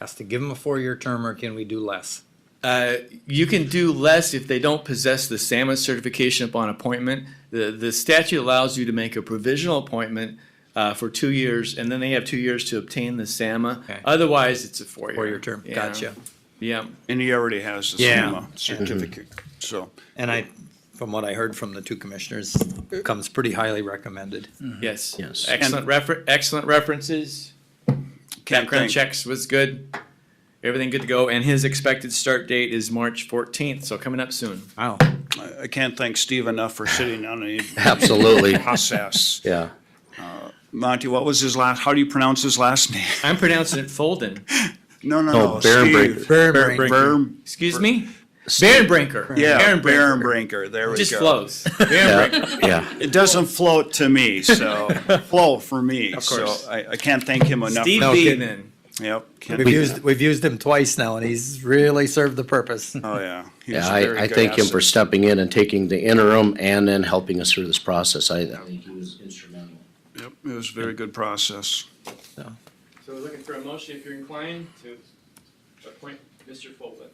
has to give them a four-year term or can we do less? Uh, you can do less if they don't possess the SAMA certification upon appointment. The, the statute allows you to make a provisional appointment uh, for two years, and then they have two years to obtain the SAMA. Okay. Otherwise, it's a four-year. Four-year term, Yeah. gotcha. Yeah. And he already has the Yeah. SEMA Mm-hmm. certificate, so. And I, from what I heard from the two commissioners, comes pretty highly recommended. Yes. Yes. Excellent refer, excellent references. can't Background thank- checks was good. Everything good to go. And his expected start date is March fourteenth, so coming up soon. Wow. I- I can't thank Steve enough for sitting on a Absolutely. process. Yeah. Monty, what was his last, how do you pronounce his last name? I'm pronouncing it Folden. No, no, No, no. Behrenbrinker. Steve. Behrenbrinker. Behren- Excuse me? Barenbrinker. Yeah, Barenbrinker. Behrenbrinker, there we It go. just flows. Barenbrinker. Yeah. It doesn't float to me, so, flow for me, so course. I, I can't thank him enough. Steve No, B kidding. then. Yep. can't- We've used, we've used him twice now and he's really served the purpose. Oh, yeah. He was Yeah, a very I, I good thank him asset. for stepping in and taking the interim and then helping us through this process. I, I think he was instrumental. Yep, it was a very good process. So we're looking for a motion, if you're inclined, to appoint Mr. Folden.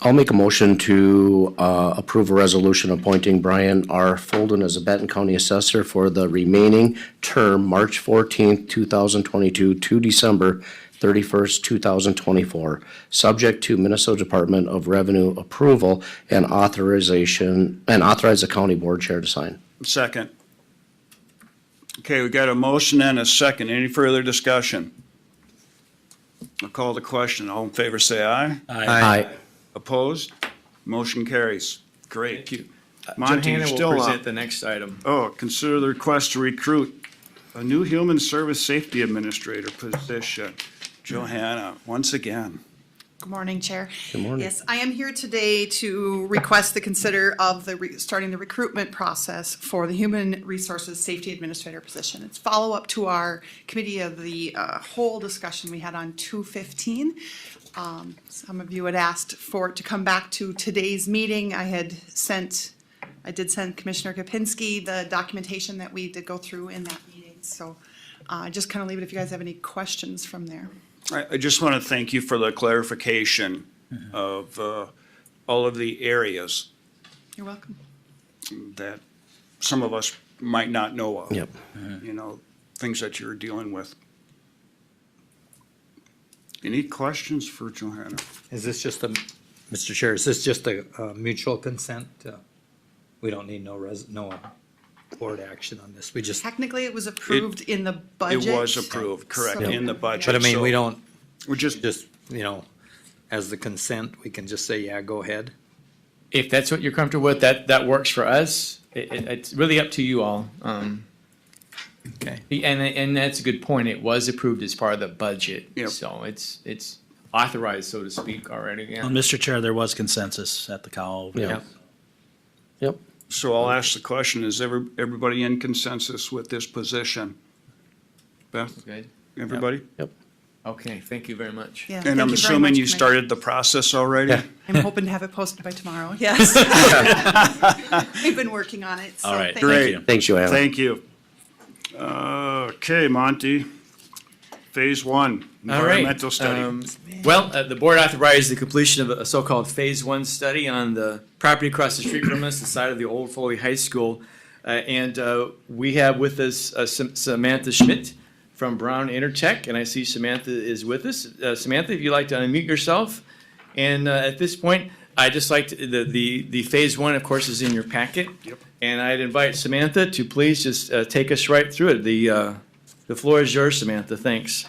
I'll make a motion to, uh, approve a resolution appointing Brian R. Folden as a Benton County Assessor for the remaining term, March fourteenth, two thousand twenty-two to December thirty-first, two thousand twenty-four, subject to Minnesota Department of Revenue approval and authorization, and authorize the county board chair to sign. Second. Okay, we got a motion and a second. Any further discussion? I'll call the question. All in favor, say aye. Aye. Opposed? Motion carries. Great. Uh, Thank you. Monty, you're Johanna will still present up. the next item. Oh, consider the request to recruit a new Human Service Safety Administrator position. Johanna, once again. Good morning, Chair. Good morning. Yes, I am here today to request the consider of the, re- starting the recruitment process for the Human Resources Safety Administrator position. It's follow-up to our committee of the uh, whole discussion we had on two fifteen. Um, Some of you had asked for it to come back to today's meeting. I had sent, I did send Commissioner Kapinski the documentation that we did go through in that meeting. So uh, just kind of leave it if you guys have any questions from there. I, I just want to thank you for the clarification Mm-hmm. of uh, all of the areas You're welcome. that some of us might not know of. Uh-huh. Yep. You know, things that you're dealing with. Any questions for Johanna? Is this just a, Mr. Chair, is this just a, a mutual consent? Uh, We don't need no res, no uh, board action on this. We just, Technically, it was approved in the budget. It was approved, correct, So- in the budget. but I mean, we so don't, We're just, just, you know, as the consent, we can just say, yeah, go ahead. If that's what you're comfortable with, that, that works for us. It, it, it's really up to you all. Um, Okay. and, and that's a good point. It was approved as part of the budget. Yep. So it's, it's authorized, so to speak, already, yeah. Well, Um, Mr. Uh, Chair, there was consensus at the call. Yeah. Yep. so I'll ask the question, is every, everybody in consensus with this position? Beth, Good. everybody? Okay, thank you very much. Yeah, thank And I'm you very assuming much, you Commissioner. started the process already? I'm hoping to have it posted by tomorrow, yes. We've been working on it, so All right, thank you. thank Great. you. Thanks, Joanna. Thank you. Okay, Monty, phase one, All right, environmental study. um, Well, uh, the board authorized the completion of a so-called Phase One study on the property across the street from us, the side of the old Foley High School. Uh, And uh, we have with us uh, Sam- Samantha Schmidt from Brown Intertech, and I see Samantha is with us. Uh, Samantha, if you'd like to unmute yourself. And uh, at this point, I'd just like, to- the, the, the Phase One, of course, is in your packet. Yep. And I'd invite Samantha to please just uh, take us right through it. The, uh, the floor is yours, Samantha, thanks.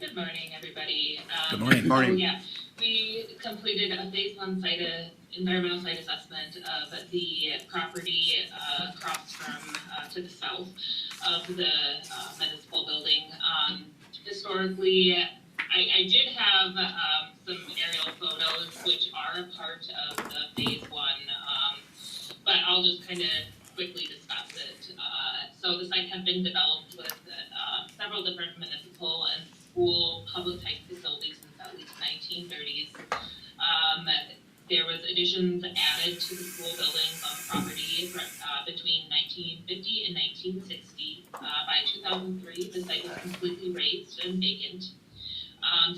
Good morning, everybody. Um, Good morning. so, Morning. Yeah, we completed a phase one site, uh, environmental site assessment of the property uh, across from, uh, to the south of the uh, municipal building. Um, Historically, I, I did have um, some aerial photos which are a part of the phase one. um, But I'll just kind of quickly discuss it. Uh, so the site had been developed with uh, several different municipal and school public high Um, uh, Uh,